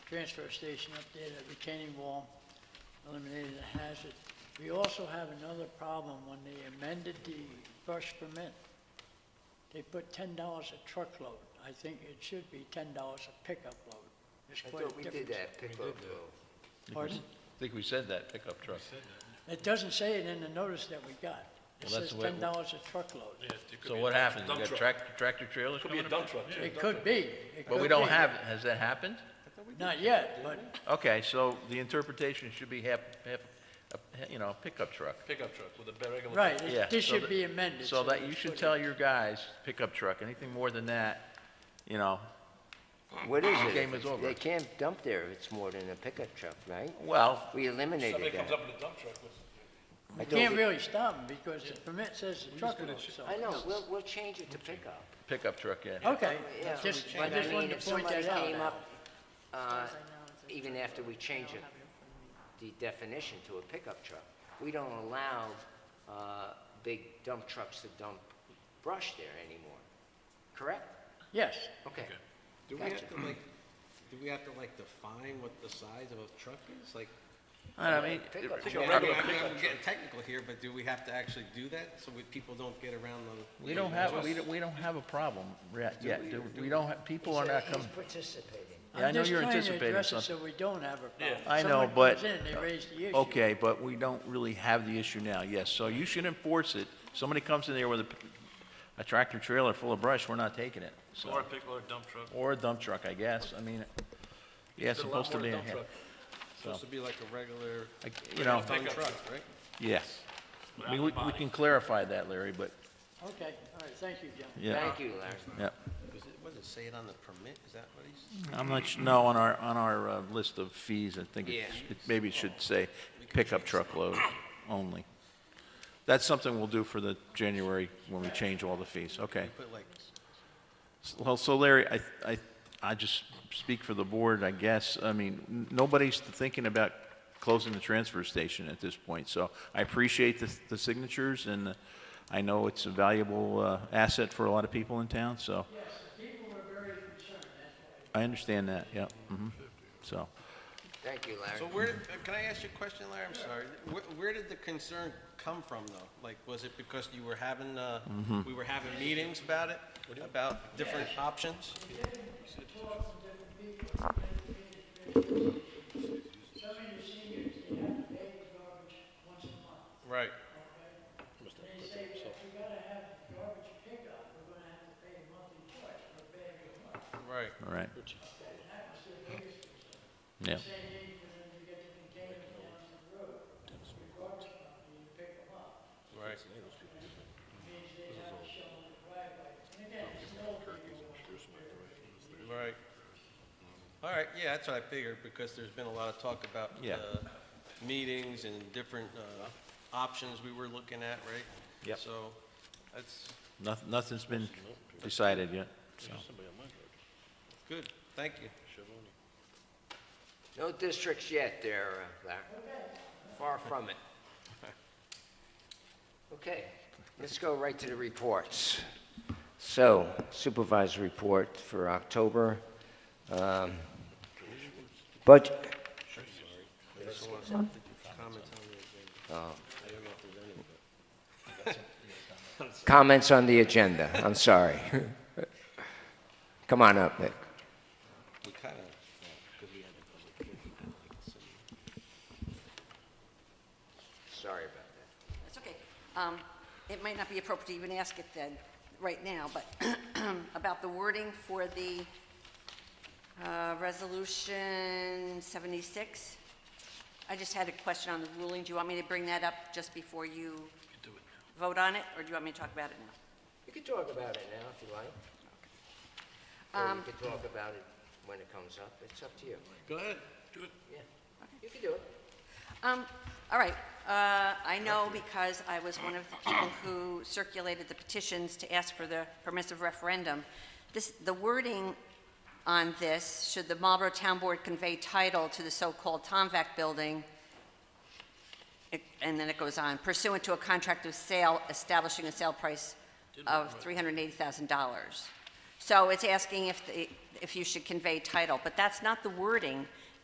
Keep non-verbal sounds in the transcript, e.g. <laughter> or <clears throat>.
transfer station updated a retaining wall, eliminated a hazard. We also have another problem when they amended the brush permit. They put ten dollars a truckload. I think it should be ten dollars a pickup load. There's I quite thought a we did difference. that pickup though. Pardon? I think we said that, pickup truck. It doesn't say it in the notice that we got. It Well, says that's the way it ten dollars a truckload. So what happens? You got tractor, tractor trailers Could be coming a up? dump truck, too. It could be. It But we could don't be. have, has that happened? Not yet, but Okay, so the interpretation should be half, half, a- you know, pickup truck. Pickup truck with a ba- regular. Right, Yeah. it- this so should that- be amended. So that, you it's should put tell in. your guys, pickup truck, anything more than that, you know, What is it? Game If it's- is over. They can't dump there if it's more than a pickup truck, right? well, We eliminated Somebody that. comes up with a dump truck with I You thought can't we- really stop them because the permit says the truck load, so. I know, we'll, we'll change it to pickup. pickup truck, yeah. Okay, Yeah, just, but I I just mean, wanted if to point somebody that out. came Al. up, uh, Even after we change it, the definition to a pickup truck, we don't allow uh, big dump trucks to dump brush there anymore, correct? Yes, Okay. Do we have Gotcha. to like, do we have to like define what the size of a truck is? Like, I mean, Pickup I truck. mean, regular I mean, pickup I'm getting technical here, but do we have to actually do that so we, people don't get around the? we don't have, we don't, we don't have a problem re- yet. Do- We don't, have people are not coming, He's participating. yeah, I I'm know just you're trying to anticipating address it something. so we don't have a problem. I know, Someone but. comes in and they raise the issue. Okay, but we don't really have the issue now, yes. So you should enforce it. Somebody comes in there with a, a tractor trailer full of brush, we're not taking it. So- Or a pick, or a dump truck. Or a dump truck, I guess. I mean, yeah, it's There's a lot supposed to more be, dump truck. Supposed to be like a regular like, you know, dump Pickup truck, right? yes. I mean, we, we can clarify that, Larry, but, Okay, all right, thank you, John. yeah, Thank you, Larry. yeah. Was it, what does it say it on the permit? Is that what he's? I'm not, su- no, on our, on our, uh, list of fees, I think it, Yeah. it maybe it Oh. should say pickup truck load only. That's something we'll do for the January, when we change all the fees, okay. Put like, Well, so Larry, I, I, I just speak for the board, I guess. I mean, n- nobody's thinking about closing the transfer station at this point. So I appreciate the, the signatures and I know it's a valuable, uh, asset for a lot of people in town, so. I understand that, yeah, hmm So, Thank you, so Larry. where, can I ask you a question, Larry? I'm sorry. Where, where did the concern come from though? Like, was it because you were having, uh, we were having meetings about it? About different options? Some of your seniors, they have to pay the garbage once a month. Right. They say, if we gotta have garbage pickup, we're gonna have to pay a monthly charge for a bag of month. Right. all right. Yeah, Right. Right. All right, yeah, that's what I figured, because there's been a lot of talk about Yeah. uh, meetings and different uh, options we were looking at, right? Yep. So, that's nothing, nothing's been decided yet, so. good, thank you. No districts yet there, uh, Larry. Far from it. Okay, let's go right to the reports. So supervisor report for October. um, Budget, comments on the agenda, I'm sorry. Come on up, Nick. We kind of, we had a public hearing, I like to see. Sorry about that. That's okay. Um, It might not be appropriate to even ask it then, right now, but <clears throat> about the wording for the uh, Resolution 76. I just had a question on the ruling. Do you want me to bring that up just before you vote on it, or do you want me to talk about it now? You can talk about it now if you like. Or you can talk about it when it comes up. It's up to you. Go ahead. Yeah. You can do it. Um, all right, uh, I know because I was one of the people who circulated the petitions to ask for the permissive referendum. This, the wording on this, should the Marlborough Town Board convey title to the so-called Tomvac building? It- And then it goes on, pursuant to a contract of sale establishing a sale price of $380,000. So it's asking if, the- if you should convey title, but that's not the wording